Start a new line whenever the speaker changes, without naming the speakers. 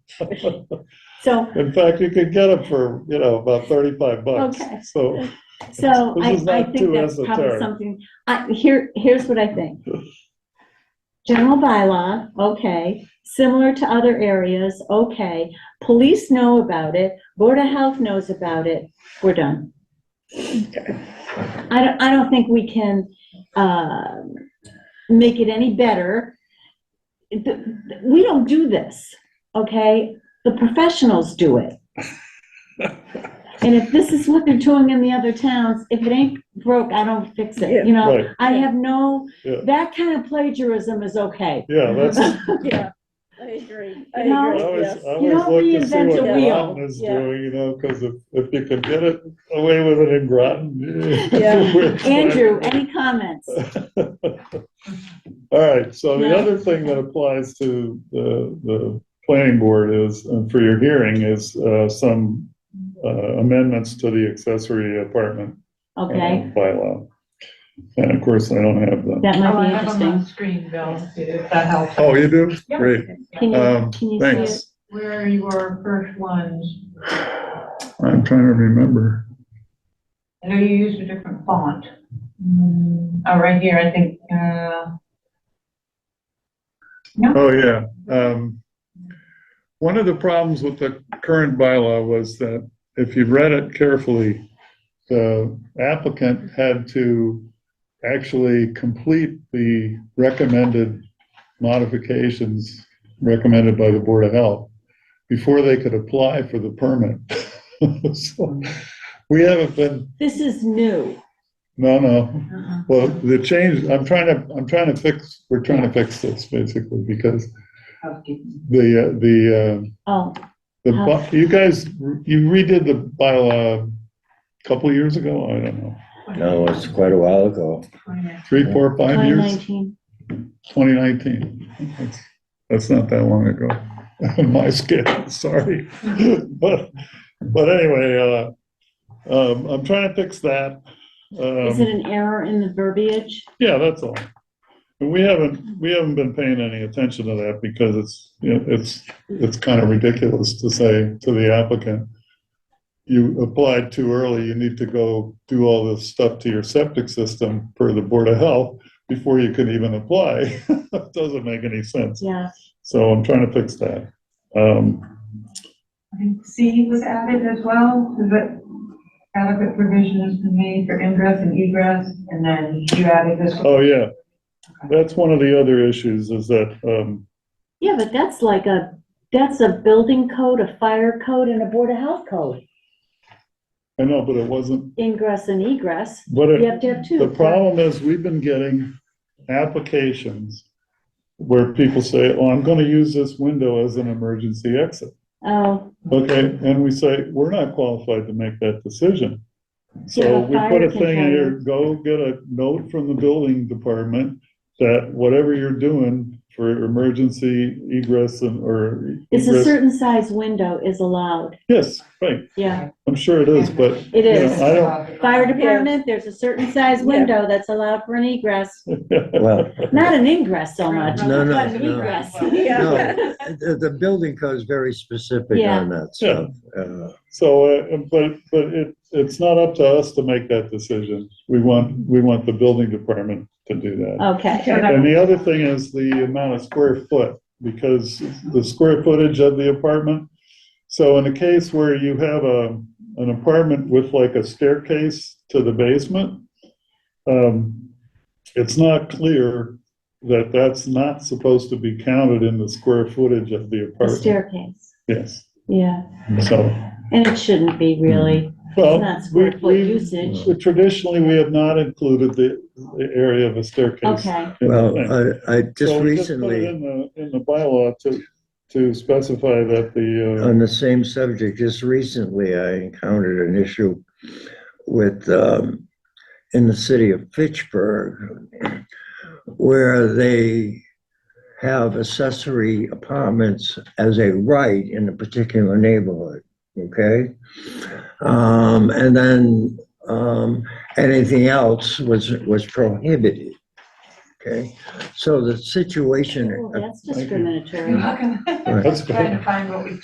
So,
In fact, you could get them for, you know, about 35 bucks.
Okay.
So,
so
This
I,
is
I
not
think
too
that's probably
esoteric.
something, I, here, here's what I think. General bylaw, okay, similar to other areas, okay. Police know about it, Board of Health knows about it, we're done. I don't, I don't think we can, uh, make it any better. Th- th- We don't do this, okay? The professionals do it. And if this is what they're doing in the other towns, if it ain't broke, I don't fix it, you know?
right,
I have no,
Yeah.
that kind of plagiarism is okay.
yeah, that's, I
Yeah, I agree. I
You know,
agree,
always,
yes.
I always
don't
look to see
reinvent
what
the wheel.
Groton is
Yeah.
doing, you know, because if, if you can get it away with it in Groton.
Yeah.
we're fine.
Andrew, any comments?
All right, so the
No.
other thing that applies to the, the planning board is, and for your hearing, is uh, some uh, amendments to the accessory apartment uh,
Okay,
bylaw. And of course, I don't have them.
that
Oh,
might
I
be
have them on
interesting.
the screen, Bill, if that helps.
Oh, you do?
Yeah.
Great,
Can you,
um,
can you see it?
thanks.
Where your first ones,
I'm trying to remember.
I know you used a different font. Mm, Oh, right here, I think, uh,
Oh, yeah. Um, One of the problems with the current bylaw was that if you read it carefully, the applicant had to actually complete the recommended modifications recommended by the Board of Health before they could apply for the permit. So, We haven't been,
This is new.
no, no,
uh-uh.
well, the change, I'm trying to, I'm trying to fix, we're trying to fix this basically because
housekeeping.
the, uh, the, uh,
Oh,
the,
Huh.
bu- you guys, you redid the bylaw a couple years ago, I don't know,
No, it's quite a while ago.
three, four, five years,
2019.
2019. That's- That's not that long ago, my scale, sorry. But, but anyway, uh, um, I'm trying to fix that.
Is
Um,
it an error in the verbiage?
Yeah, that's all. And we haven't, we haven't been paying any attention to that because it's, you know, it's, it's kind of ridiculous to say to the applicant, you applied too early, you need to go do all this stuff to your septic system per the Board of Health before you can even apply. It Doesn't make any sense.
Yeah,
So I'm trying to fix that. Um,
I think C was added as well, so that adequate provisions to made for ingress and egress, and then you added this one.
oh, yeah. That's one of the other issues is that, um,
yeah, but that's like a, that's a building code, a fire code, and a Board of Health code.
I know, but it wasn't,
Ingress and egress,
but it.
you have to have two.
The problem is, we've been getting applications where people say, oh, I'm gonna use this window as an emergency exit.
Oh,
Okay, and we say, we're not qualified to make that decision.
Yeah,
So we put
fire
a thing in here,
containment.
go get a note from the building department that whatever you're doing for emergency egress and, or.
it's a
egress-
certain size window is allowed,
Yes, right,
yeah,
I'm sure it is, but
it
Yeah,
is.
I
Fire department, there's a certain size window that's allowed for an egress,
Well,
not an ingress so much,
No, no,
but an
no.
egress.
Yeah.
no, the, the building code's very specific on that stuff. Uh,
So, uh, but, but it, it's not up to us to make that decision. We want, we want the building department to do that.
Okay,
So that-
And the other thing is the amount of square foot, because the square footage of the apartment. So in a case where you have a, an apartment with like a staircase to the basement, um, it's not clear that that's not supposed to be counted in the square footage of the
the
apartment.
staircase,
Yes,
yeah,
so,
and it shouldn't be really,
well.
it's not square
we-
foot
we-
usage,
So Traditionally, we have not included the, the area of a staircase.
okay,
in the
Well,
thing.
I, I just
So we put it
recently,
In the, in the bylaw to, to specify that the, uh,
on the same subject, just recently, I encountered an issue with, um, in the city of Fitchburg, where they have accessory apartments as a right in a particular neighborhood, okay? Um, and then, um, anything else was, was prohibited, okay? So the situation
oh, that's discriminatory.
How can-
uh, that's,
Trying to find what we